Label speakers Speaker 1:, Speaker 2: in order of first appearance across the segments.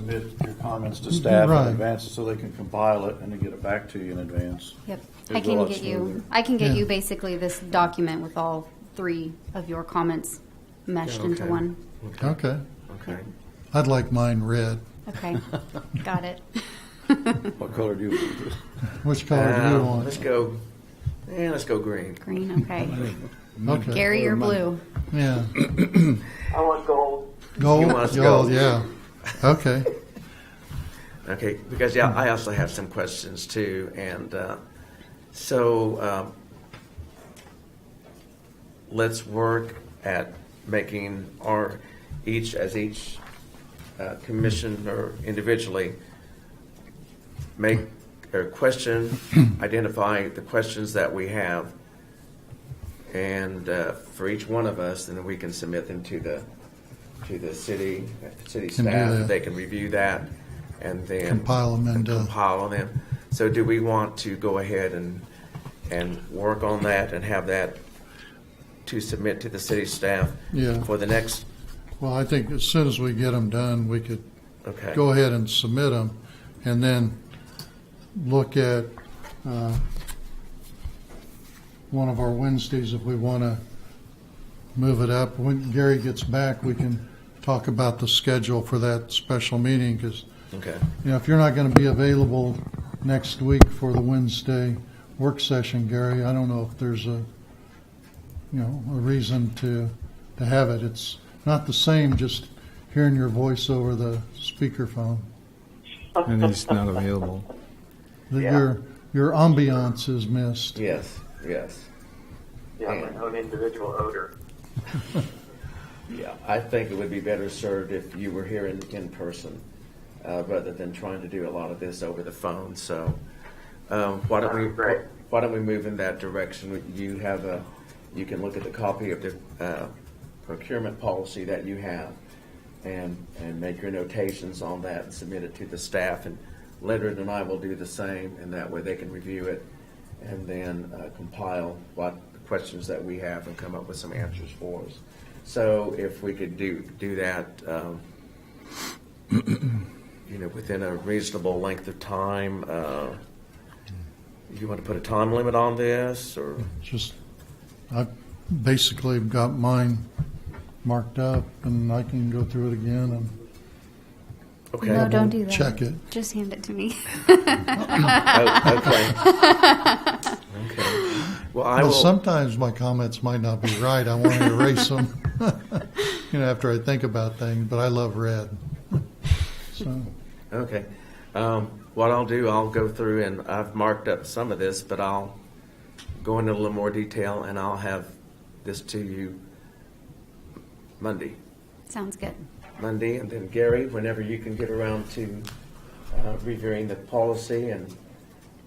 Speaker 1: submit your comments to staff in
Speaker 2: Right.
Speaker 1: advance so they can compile it and then get it back to you in advance.
Speaker 3: Yep,
Speaker 1: It'd
Speaker 3: I
Speaker 1: go
Speaker 3: can
Speaker 1: out
Speaker 3: get you,
Speaker 1: smoother.
Speaker 3: I can get
Speaker 2: Yeah.
Speaker 3: you basically this document with all three of your comments meshed into
Speaker 4: Okay.
Speaker 3: one.
Speaker 2: Okay.
Speaker 4: Okay.
Speaker 2: I'd like mine red.
Speaker 3: Okay, got it.
Speaker 1: What color do you want?
Speaker 2: Which color do you
Speaker 4: Um,
Speaker 2: want?
Speaker 4: Let's go, yeah, let's go green.
Speaker 3: Green, okay.
Speaker 2: Okay.
Speaker 3: Gary, you're blue.
Speaker 2: Yeah.
Speaker 5: I want gold.
Speaker 2: Gold.
Speaker 4: want us
Speaker 2: Gold,
Speaker 4: gold.
Speaker 2: Yeah. Okay.
Speaker 4: Okay, because yeah, I also have some questions too, and uh, so um, let's work at making our each as each uh, commissioner individually make a question, identify the questions that we have, and uh, for each one of us, then we can submit them to the to the city uh, city
Speaker 2: Can do
Speaker 4: staff.
Speaker 2: that.
Speaker 4: They can review that, and then
Speaker 2: Compile 'em and, uh,
Speaker 4: compile them. So, do we want to go ahead and and work on that and have that to submit to the city staff
Speaker 2: Yeah.
Speaker 4: for the next?
Speaker 2: Well, I think as soon as we get them done, we could
Speaker 4: Okay.
Speaker 2: go ahead and submit them, and then look at uh, one of our Wednesdays if we want to move it up. When Gary gets back, we can talk about the schedule for that special meeting, because,
Speaker 4: Okay.
Speaker 2: you know, if you're not going to be available next week for the Wednesday work session, Gary, I don't know if there's a, you know, a reason to, to have it. It's not the same just hearing your voice over the speakerphone.
Speaker 6: and it's not available.
Speaker 2: that
Speaker 4: Yeah.
Speaker 2: your your ambiance is missed.
Speaker 4: Yes. Yes.
Speaker 5: Yeah, my own individual odor.
Speaker 4: Yeah, I think it would be better served if you were here in, in person, uh, rather than trying to do a lot of this over the phone, so, um, why don't we,
Speaker 5: Sounds great.
Speaker 4: why don't we move in that direction? You have a, you can look at the copy of the, uh, procurement policy that you have and, and make your notations on that and submit it to the staff, and Leonard and I will do the same, and that way they can review it and then uh, compile what questions that we have and come up with some answers for us. So if we could do, do that, um, you know, within a reasonable length of time, uh, you want to put a time limit on this, or?
Speaker 2: Just I basically got mine marked up, and I can go through it again and
Speaker 4: Okay.
Speaker 3: No, Oh, don't do that.
Speaker 2: check it.
Speaker 3: Just hand it to me.
Speaker 4: Oh, okay. Okay. Well, I
Speaker 2: But
Speaker 4: will,
Speaker 2: sometimes my comments might not be right. I want to erase them, you know, after I think about things. But I love red, so
Speaker 4: okay. Um, What I'll do, I'll go through and I've marked up some of this, but I'll go into a little more detail and I'll have this to you Monday.
Speaker 3: Sounds good.
Speaker 4: Monday, and then Gary, whenever you can get around to uh, reviewing the policy and,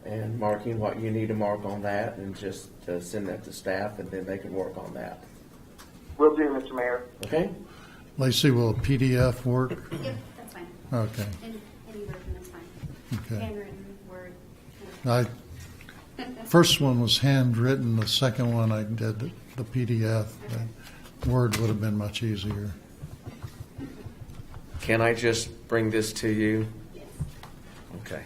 Speaker 4: and marking what you need to mark on that, and just uh, send that to staff, and then they can work on that.
Speaker 5: Will do, Mr. Mayor.
Speaker 4: Okay?
Speaker 2: Lacey, will a PDF work?
Speaker 3: Yep, that's fine.
Speaker 2: Okay,
Speaker 3: Any, any version is fine.
Speaker 2: okay.
Speaker 3: Handwritten, Word.
Speaker 2: I first one was handwritten. The second one I did the, the PDF. But Word would have been much easier.
Speaker 4: Can I just bring this to you? Okay.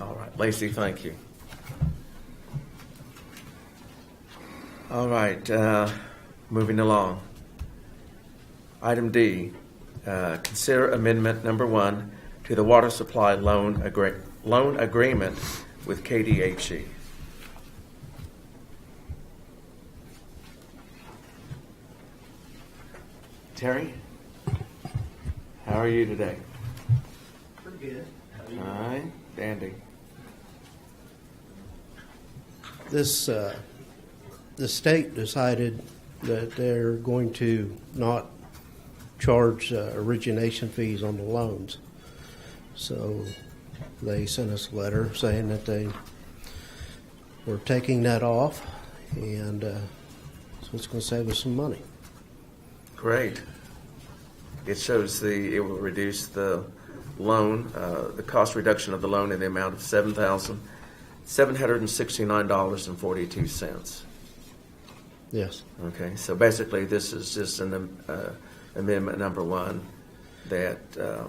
Speaker 4: All right, Lacey, thank you. All right, uh, moving along. Item D, uh, consider amendment number one to the water supply loan agree, loan agreement with KDHE. Terry? How are you today? Pretty good. All right, dandy.
Speaker 7: this, uh, the state decided that they're going to not charge uh, origination fees on the loans. So they sent us a letter saying that they were taking that off, and uh, so it's going to save us some money.
Speaker 4: Great. It shows the, it will reduce the loan, uh, the cost reduction of the loan in the amount of seven thousand, seven hundred and sixty-nine dollars and forty-two cents.
Speaker 7: Yes.
Speaker 4: Okay, so basically, this is just an um, uh, amendment number one that, uh,